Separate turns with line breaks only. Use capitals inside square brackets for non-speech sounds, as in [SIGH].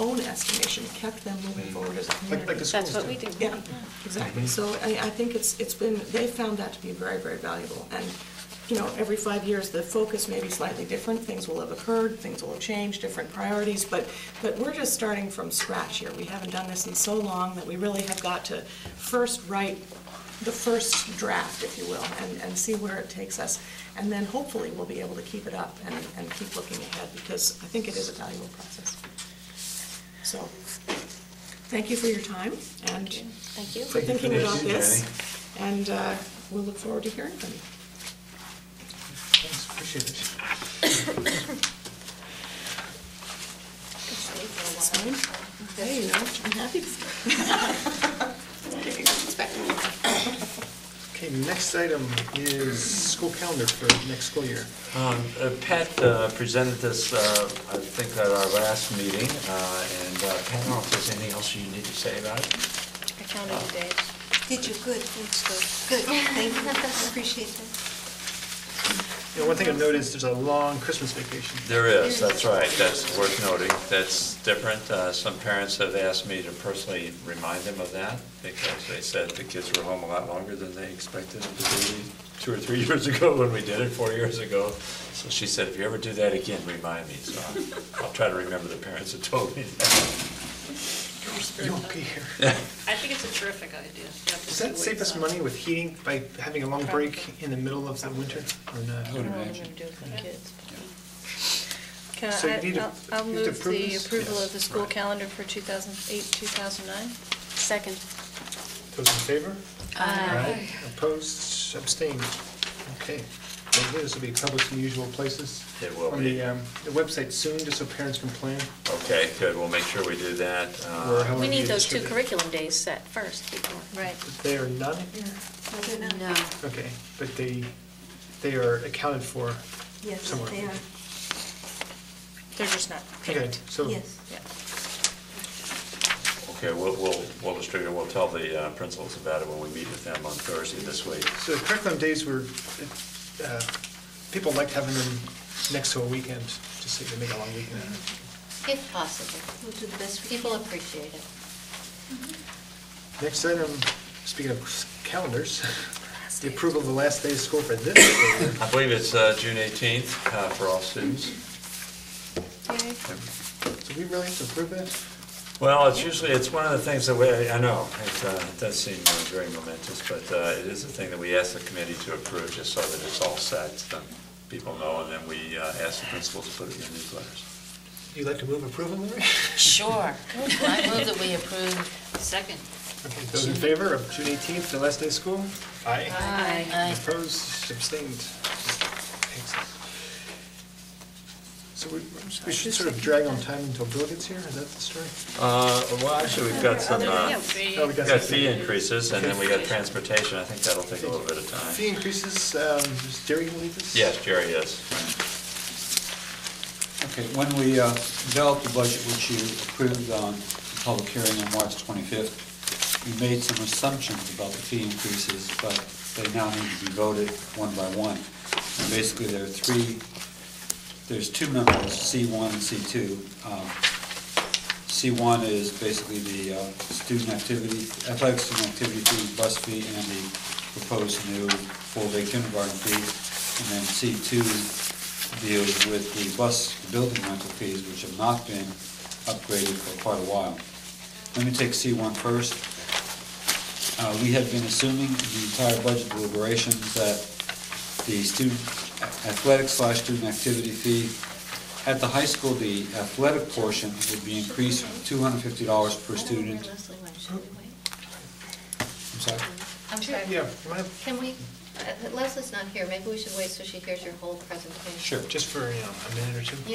protect them moving forward as a
Like, like
community.
the schools
That's what we do.
Yeah, exactly. So I, I think it's, it's been, they found that to be very, very valuable. And, you know, every five years, the focus may be slightly different, things will have occurred, things will have changed, different priorities, but, but we're just starting from scratch here. We haven't done this in so long that we really have got to first write the first draft, if you will, and, and see where it takes us. And then hopefully, we'll be able to keep it up and, and keep looking ahead, because I think it is a valuable process. So, thank you for your time, and
Thank you.
for
Thank you for
thinking
this,
about
Jenny.
this, and uh, we'll look forward to hearing from you.
Thanks, appreciate it.
It's fine. Hey, you know, I'm happy.
[LAUGHS]
Okay, next item is school calendar for next school year.
Um, uh, Pat uh, presented this, uh, I think, at our last meeting, uh, and uh, Pat, I don't know if there's anything else you need to say about it?
I counted the days.
Did you? Good, that's good. Good, thank you, I appreciate that.
You know, one thing I've noticed, there's a long Christmas vacation.
There is, that's right, that's worth noting, that's different. Uh, Some parents have asked me to personally remind them of that, because they said the kids were home a lot longer than they expected them to be two or three [LAUGHS] years ago when we did it, four years ago. So she said, if you ever do that again, remind me, so I'll- I'll try to remember the parents that told me that.
You won't be here.
I think it's a terrific idea. You have to
Does
see
that
what
save
it's
us money with heating by having a long break in the middle of the winter or not?
I don't know what I'm gonna do with my kids. Can
So you need to-
I, I'll- I'll
you need to
move
approve
the
this?
approval
Yes,
of the school
right.
calendar for 2008, 2009.
Second.
Those in favor?
Uh,
Aye.
Opposed, abstained? Okay. Well, This will be published in the usual places.
It will
On
be.
the, um, the website soon, just so parents can plan.
Okay, good, we'll make sure we do that. Uh,
Or how
We need
you
those two
distribute
curriculum days set first before.
Right.
it. They are not,
No.
okay, but they, they are accounted for
Yes,
somewhere.
they are,
They're just not
Okay,
picked.
so.
yes.
Yeah.
Okay, we'll, we'll, we'll distribute, we'll tell the uh, principals about it when we meet with them on Thursday this week.
So the curriculum days were, uh, people liked having them next to a weekend, just so you can make a long weekend. out of
If possible.
We'll do the best we can.
People appreciate it.
it. Next item, speaking of calendars, the approval of the last day of school for this school year.
I believe it's uh, June 18th uh, for all students.
Do we really have to approve that?
Well, it's usually, it's one of the things that we, I know, it uh, it does seem uh, very momentous, but uh, it is a thing that we ask the committee to approve, just so that it's all set, so people know, and then we uh, ask the principals to put it in the newsletters.
You'd like to move approval, Larry?
Sure. I move that we approve.
like. Second.
Okay, Those in favor of June 18th, the last day of school? Aye.
Aye.
Aye.
Opposed, abstained. Excellent. So we we should sort of drag on time until Bill gets here, is that the story?
Uh, Well, actually, we've got some, uh,
Oh, we
we've got
some-
fee increases, and then we got transportation, I think that'll take a little bit of time.
Fee increases, um, is Jerry going to lead this?
Yes, Jerry, yes.
Okay, when we uh, developed the budget, which you approved on the public hearing on March 25th, we made some assumptions about the fee increases, but they now need to be voted one by one. And basically, there are three, there's two numbers, C1 and C2. Um, C1 is basically the uh, student activity, athletic student activity fee, bus fee, and the proposed new full-day kindergarten fee. And then C2 deals with the bus building rental fees, which have not been upgraded for quite a while. Let me take C1 first. Uh, We had been assuming in the entire budget deliberations that the student athletic slash student activity fee at the high school, the athletic portion would be increased from $250 per student.
Leslie, wait, should we wait?
I'm sorry.
I'm sorry.
Yeah, my-
Can we, uh, Leslie's not here, maybe we should wait so she hears your whole presentation.
Sure.
just for you know, a minute or two.